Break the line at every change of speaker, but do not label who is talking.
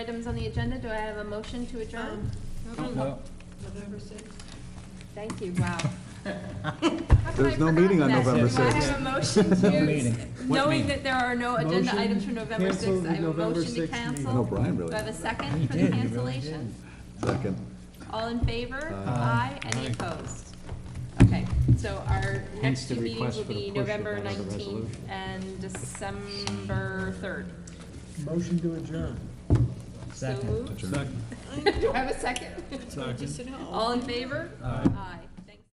Items on the agenda, do I have a motion to adjourn?
Well,
Thank you, wow.
There's no meeting on November
Do I
6th.
have a motion
meeting.
to,
What
knowing
meeting?
that there are no agenda
Motion
items for November
cancel
6th, I
the
have a
November
motion to
6th meeting.
cancel.
No, Brian really
Do I have a second
You
for
did,
the
you really
cancellation?
Second.
All in favor?
Aye.
Aye, any
Aye.
opposed? Okay, so our next
Hence
two
the
meetings
request
will
for the
be
push
November
without a
19th
resolution.
and December 3rd.
Motion to adjourn.
So moved. Do I have a second?
Second.
All in favor? Aye.